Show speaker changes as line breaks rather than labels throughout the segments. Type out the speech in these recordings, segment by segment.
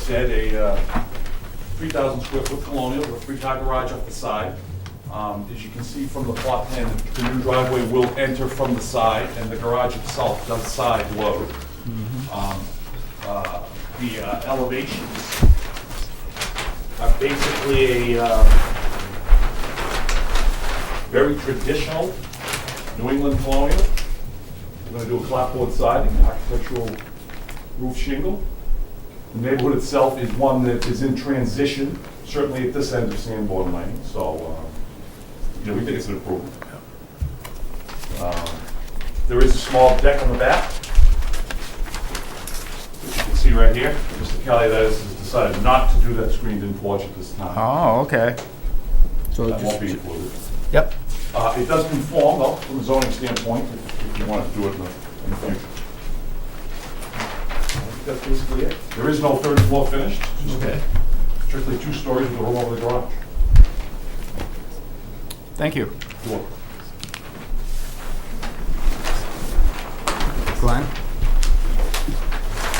said, a uh, 3,000 square foot colonial with a three-car garage off the side. Um, As you can see from the plot plan, the new driveway will enter from the side, and the garage itself does side load. Um, uh, The uh, elevations are basically a uh, very traditional New England colonial. We're gonna do a clapboard siding, architectural roof shingle. The neighborhood itself is one that is in transition, certainly at this end of Sanborn Lane, so, uh, you know, we think it's an improvement. Um, There is a small deck on the back, which you can see right here. Mr. Kelly, that is, has decided not to do that screened-in porch at this time.
Uh-huh.
Oh, okay. So
That won't
just,
be included.
yep,
Uh, It does conform, though, from a zoning standpoint, if if you want to do it in the in the future. I think That's basically it. There is no third floor finished, just
okay,
strictly two stories with a room over the garage.
thank you.
Door.
Glenn?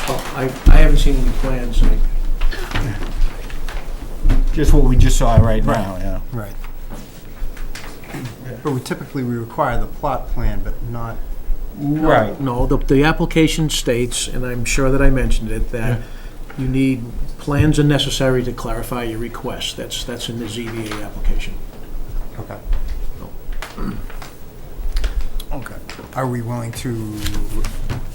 Well, I, I haven't seen any plans, I,
Just what we just saw right now, yeah.
Right. But we typically, we require the plot plan, but not,
Right.
no, the, the application states, and I'm sure that I mentioned it, that you need, plans are necessary to clarify your request, that's, that's in the ZBA application.
okay.
No.
Okay. Are we willing to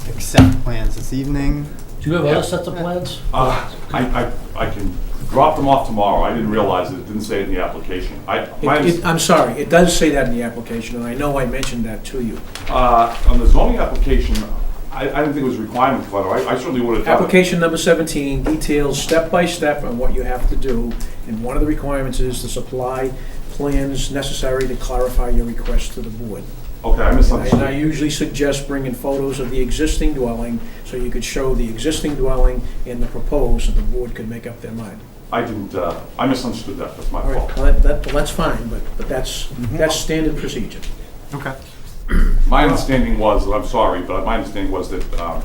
accept plans this evening?
Do you have other sets of plans?
Uh, I I I can drop them off tomorrow. I didn't realize it, it didn't say it in the application. I,
It-
my
it- I'm sorry, it does say that in the application, and I know I mentioned that to you.
Uh, on the zoning application, I, I didn't think it was a requirement for letter. I, I certainly would have done it.
Application number 17 details step by step on what you have to do, and one of the requirements is to supply plans necessary to clarify your request to the board.
Okay, I
And I
misunderstood.
usually suggest bringing photos of the existing dwelling, so you could show the existing dwelling and the proposed, and the board could make up their mind.
I didn't, uh, I misunderstood that. That's my
All
fault.
right, well, that- that, well, that's fine, but, but that's, that's standard procedure.
Okay.
My understanding was, and I'm sorry, but my understanding was that um,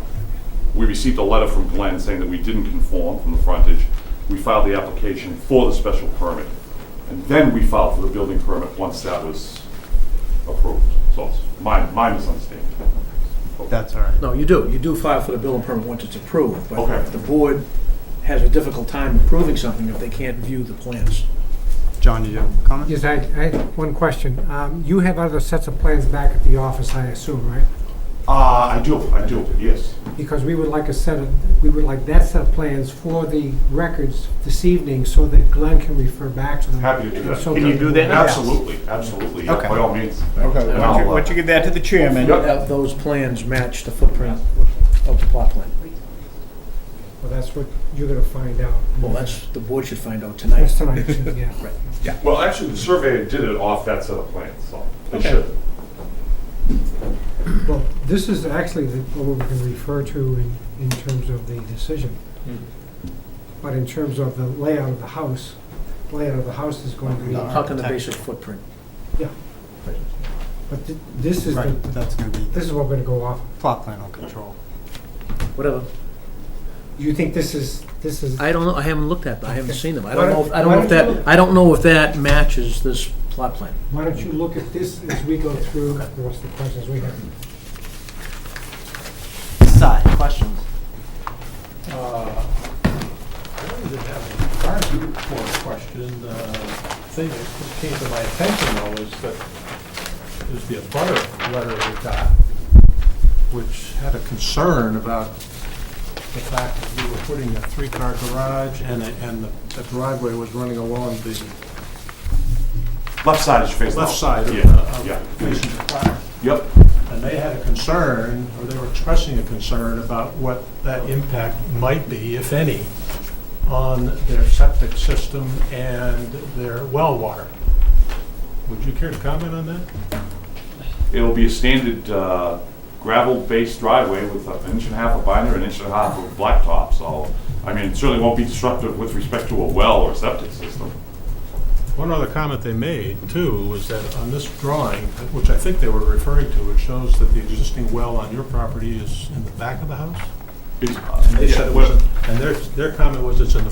we received a letter from Glenn saying that we didn't conform from the frontage. We filed the application for the special permit, and then we filed for the building permit once that was approved. So it's my, my misunderstanding.
That's all right.
No, you do, you do file for the building permit once it's approved, but
Okay.
if the board has a difficult time approving something if they can't view the plans.
John, did you have a comment?
Yes, I, I, one question. Um, You have other sets of plans back at the office, I assume, right?
Uh, I do, I do, yes.
Because we would like a set of, we would like that set of plans for the records this evening so that Glenn can refer back to them.
Happy to do that.
So
Can you do that now?
Absolutely, absolutely, yeah,
Okay.
by all means.
Okay, why
And
don't you-
I'll, uh,
why don't you give that to the chairman?
Yep.
Have those plans match the footprint of the plot plan.
Well, that's what you're gonna find out.
Well, that's, the board should find out
That's
tonight.
tonight, yeah.
Right.
Well, actually, the surveyor did it off that set of plans, so they should.
Well, this is actually the- what we can refer to in, in terms of the decision. But in terms of the layout of the house, layout of the house is going to be,
How can the basic footprint?
but thi- this is,
Right,
the
that's gonna be,
this is what we're gonna go off.
plot plan will control.
Whatever.
You think this is, this is,
I don't know, I haven't looked at them, I haven't
Okay.
seen them. I
Why
don't know, if-
don't-
I don't know if
why don't you
that, I don't know if that matches this plot plan.
why don't you look at this as we go through the rest of the questions we have?
Side, questions?
I don't even have a argument for a question. The thing that came to my attention though is that there's the abutter letter we got, which had a concern about the fact that we were putting a three-car garage and, a- and the- the driveway was running along the
Left side is your face.
left side of,
Yeah,
of
yeah.
facing the fire.
Yep,
And they had a concern, or they were expressing a concern about what that impact might be, if any, on their septic system and their well water. Would you care to comment on that?
it'll be a standard uh, gravel-based driveway with an inch and a half of binder, an inch and a half of blacktop, so, I mean, it certainly won't be disruptive with respect to a well or septic system.
One other comment they made, too, was that on this drawing, which I think they were referring to, it shows that the existing well on your property is in the back of the house?
Is-
They said it
yeah, well-
wasn't, and their, their comment was it's in the